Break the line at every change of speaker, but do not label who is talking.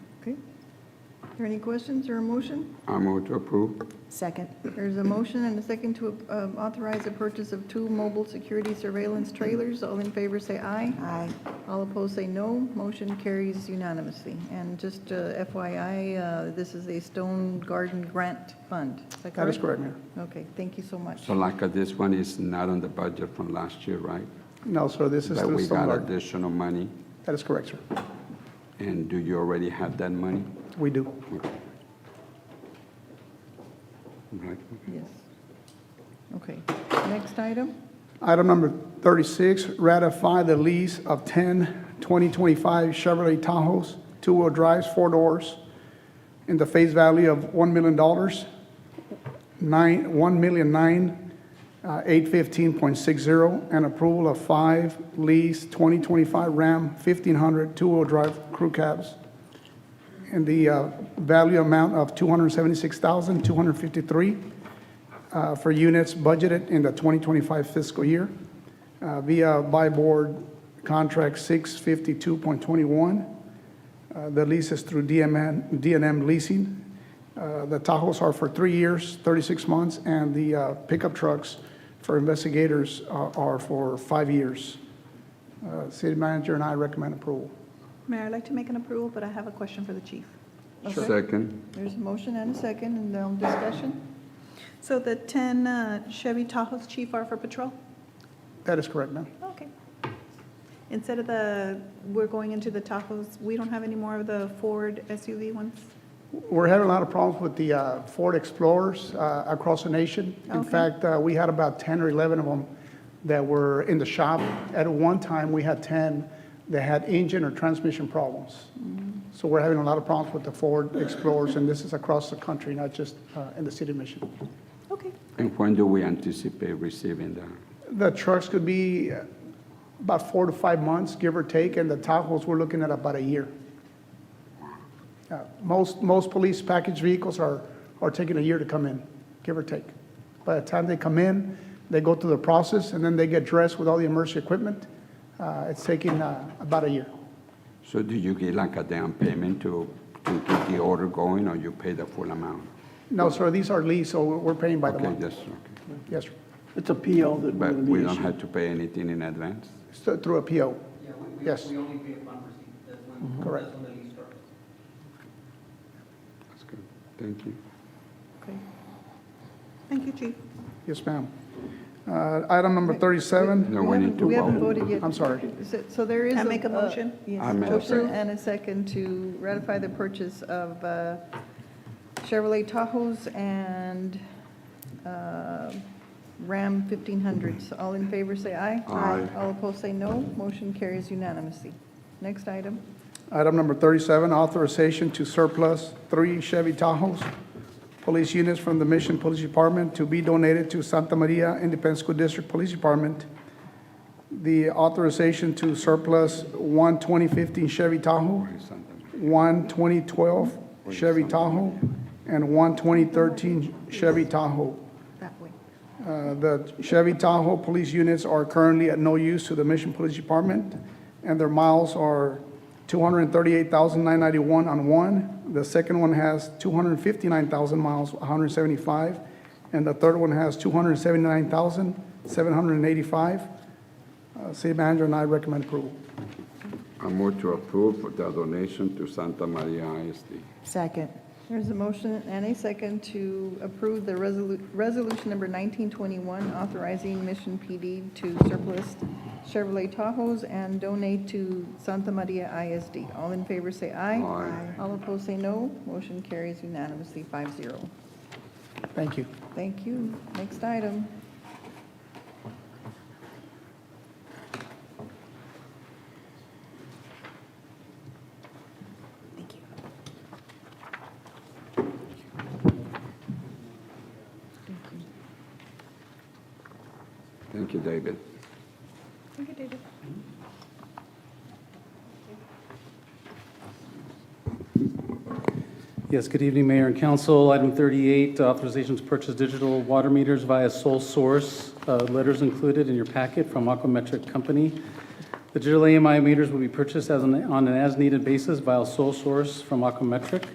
Okay. Are there any questions or a motion?
I move to approve.
Second.
There's a motion and a second to um, authorize the purchase of two mobile security surveillance trailers. All in favor, say aye.
Aye.
All opposed, say no. Motion carries unanimously. And just uh, FYI, uh, this is a Stone Garden Grant Fund. Is that correct?
That is correct, Mayor.
Okay, thank you so much.
So like uh, this one is not on the budget from last year, right?
No, sir, this is
But
through
we
Stone
got
Garden.
additional money,
That is correct, sir.
and do you already have that money?
We do.
Okay. Right.
Yes. Okay, next item?
Item number 36, ratify the lease of 10 2025 Chevrolet Tahoes, two-wheel drives, four doors, in the face value of $1 million, nine- uh, $1,009,815.60, and approval of five lease 2025 Ram 1500 two-wheel drive crew cabs in the uh, value amount of $276,253 uh, for units budgeted in the 2025 fiscal year uh, via by board contract 652.21. Uh, The lease is through DMN DNM Leasing. Uh, The Tahoes are for three years, 36 months, and the uh, pickup trucks for investigators are are for five years. Uh, City manager and I recommend approval.
Mayor, I'd like to make an approval, but I have a question for the chief.
Okay.
Second,
There's a motion and a second, and no discussion?
So the 10 uh, Chevy Tahoes, chief, are for patrol?
That is correct, ma'am.
Okay. Instead of the, we're going into the Tahoes, we don't have any more of the Ford SUV ones?
We're having a lot of problems with the uh, Ford Explorers uh, across the nation. In
Okay.
fact, uh, we had about 10 or 11 of them that were in the shop. At one time, we had 10 that had engine or transmission problems. So we're having a lot of problems with the Ford Explorers, and this is across the country, not just uh, in the city of Mission.
Okay,
and when do we anticipate receiving that?
The trucks could be uh, about four to five months, give or take, and the Tahoes, we're looking at about a year. Uh, Most, most police package vehicles are, are taking a year to come in, give or take. By the time they come in, they go through the process, and then they get dressed with all the emergency equipment. Uh, It's taking uh, about a year.
So do you get like a down payment to, to get the order going, or you pay the full amount?
No, sir, these are leased, so we're- we're paying by the
Okay,
month.
yes, okay.
Yes, sir.
It's a PO that we're
But
going to
we
be
don't
issuing.
have to pay anything in advance?
It's th- Through a PO.
Yeah, we, we,
Yes. Mm-hmm.
we only pay upon receipt, that's when,
Correct.
that's when the lease starts.
That's good, thank you.
Okay.
thank you, chief.
Yes, ma'am. Uh, Item number 37.
No, we need to
We haven't
vote.
voted yet.
I'm sorry.
So- So there is. uh,
Can I make a motion?
Yes,
I made a
motion
second.
and a second to ratify the purchase of uh, Chevrolet Tahoes and uh, Ram 1500s. All in favor, say aye.
Aye.
All opposed, say no. Motion carries unanimously. Next item.
Item number 37, authorization to surplus three Chevy Tahoes police units from the Mission Police Department to be donated to Santa Maria Independent School District Police Department. The authorization to surplus one 2015 Chevy Tahoe, one 2012 Chevy Tahoe, and one 2013 Chevy Tahoe.
That way.
Uh, The Chevy Tahoe police units are currently at no use to the Mission Police Department, and their miles are 238,991 on one. The second one has 259,000 miles, 175, and the third one has 279,785. Uh, City manager and I recommend approval.
I move to approve the donation to Santa Maria ISD.
Second.
There's a motion and a second to approve the resolu- resolution number 1921, authorizing Mission PD to surplus Chevrolet Tahoes and donate to Santa Maria ISD. All in favor, say aye.
Aye.
All opposed, say no. Motion carries unanimously, 5-0.
Thank you.
Thank you. Next item.
Thank you.
Thank you, David.
Thank you, David.
Yes, good evening, Mayor and Council. Item 38, authorization to purchase digital water meters via sole source. Uh, Letters included in your packet from Aquametric Company. The digital AMI meters will be purchased as an, on an as-needed basis by a sole source from Aquametric.